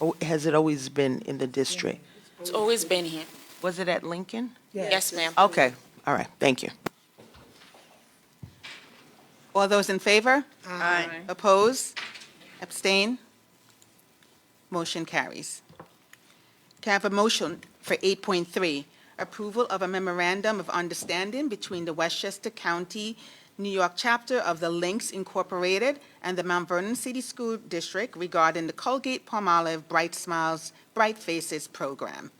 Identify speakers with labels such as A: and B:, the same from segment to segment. A: Oh, has it always been in the district?
B: It's always been here.
A: Was it at Lincoln?
B: Yes, ma'am.
A: Okay, all right, thank you.
C: All those in favor? Aye. Oppose? Abstain? Motion carries. Can I have a motion for 8.3, approval of a memorandum of understanding between the Westchester County, New York chapter of the Lynx Incorporated and the Mount Vernon City School District regarding the Colgate-Palmolive Bright Smiles, Bright Faces Program?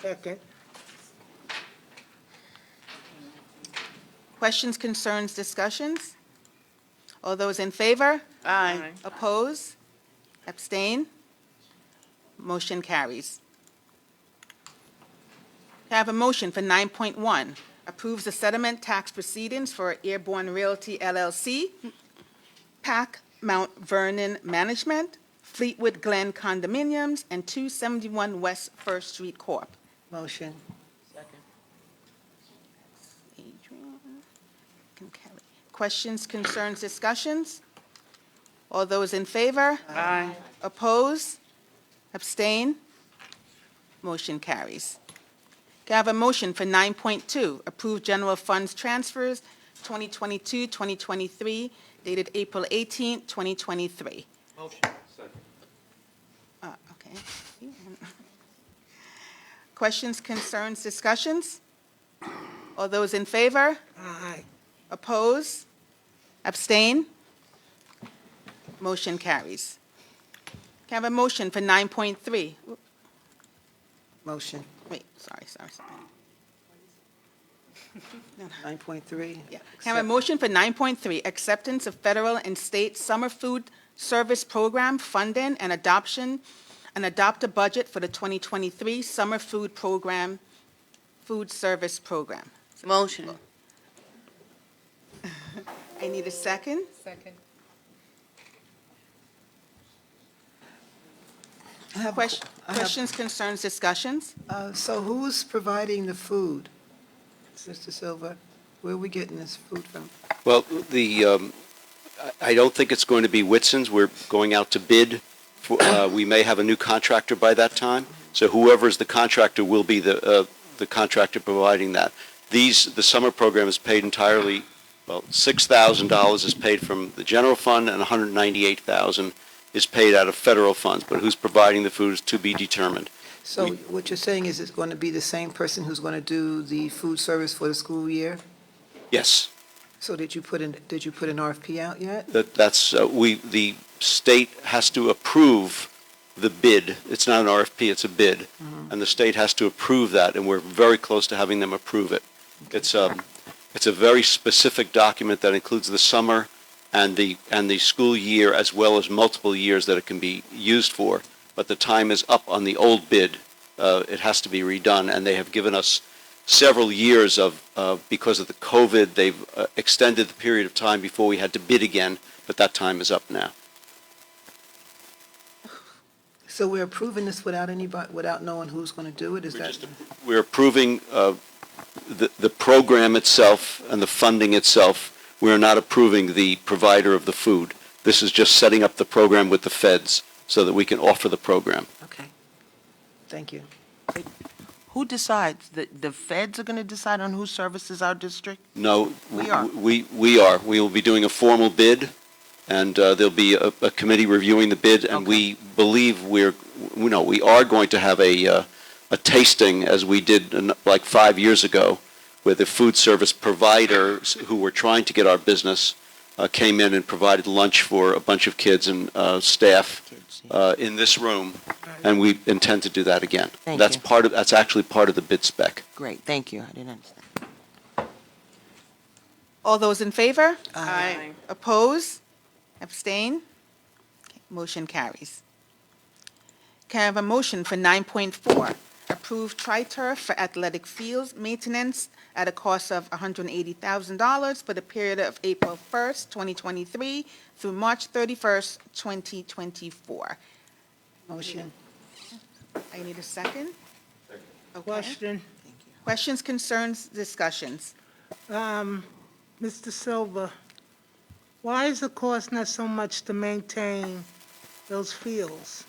D: Second.
C: Questions, concerns, discussions? All those in favor? Aye. Oppose? Abstain? Motion carries. Can I have a motion for 9.1? Approves the settlement tax proceedings for Airborne Realty LLC, PAC Mount Vernon Management, Fleetwood Glen Condominiums, and 271 West First Street Corp.
D: Motion.
C: Adrian and Kelly. Questions, concerns, discussions? All those in favor? Aye. Oppose? Abstain? Motion carries. Can I have a motion for 9.2, approve general funds transfers 2022-2023 dated April 18, 2023?
D: Motion.
C: Uh, Okay. Questions, concerns, discussions? All those in favor?
D: Aye.
C: Oppose? Abstain? Motion carries. Can I have a motion for 9.3? Oop,
D: Motion.
C: Wait, sorry, sorry, sorry.
D: Nine point three.
C: Yeah. Can I have a motion for 9.3, acceptance of federal and state summer food service program funding and adoption, and adopt a budget for the 2023 summer food program, food service program?
B: Motion.
C: I need a second.
E: Second.
C: Ques- Questions, concerns, discussions?
D: Uh, so who's providing the food? Mr. Silva, where are we getting this food from?
F: Well, the, um, I- I don't think it's going to be Whitson's. We're going out to bid. for- uh, We may have a new contractor by that time. So whoever is the contractor will be the uh, the contractor providing that. These, the summer program is paid entirely, well, $6,000 is paid from the general fund and $198,000 is paid out of federal funds. But who's providing the food is to be determined.
D: So
F: We-
D: what you're saying is it's going to be the same person who's going to do the food service for the school year?
F: Yes.
D: So did you put in, did you put an RFP out yet?
F: That, that's, uh, we, the state has to approve the bid. It's not an RFP, it's a bid. And the state has to approve that, and we're very close to having them approve it. It's, um, it's a very specific document that includes the summer and the, and the school year, as well as multiple years that it can be used for. But the time is up on the old bid. Uh, it has to be redone, and they have given us several years of, of- because of the COVID, they've uh, extended the period of time before we had to bid again, but that time is up now.
D: So we're approving this without anybody, without knowing who's going to do it? Is
F: We're
D: that?
F: just We're approving uh, the, the program itself and the funding itself. We're not approving the provider of the food. This is just setting up the program with the feds so that we can offer the program.
D: Okay. Thank you.
A: Who decides? The, the feds are going to decide on who services our district?
F: No.
A: We are.
F: We, we are. We will be doing a formal bid, and uh, there'll be a, a committee reviewing the bid, and we believe we're, we know, we are going to have a, uh, a tasting, as we did in- like five years ago, where the food service providers who were trying to get our business uh, came in and provided lunch for a bunch of kids and uh, staff
A: Kids, yeah.
F: uh, in this room, and we intend to do that again.
A: Thank
F: That's
A: you.
F: part of, that's actually part of the bid spec.
A: Great, thank you, I didn't understand.
C: All those in favor? Aye. Oppose? Abstain? Okay, Motion carries. Can I have a motion for 9.4? Approve tri-turf for athletic fields maintenance at a cost of $180,000 for the period of April 1st, 2023 through March 31st, 2024.
D: Motion.
C: I need a second? Okay.
G: Question,
C: Questions, concerns, discussions?
G: um, Mr. Silva, why is the cost not so much to maintain those fields?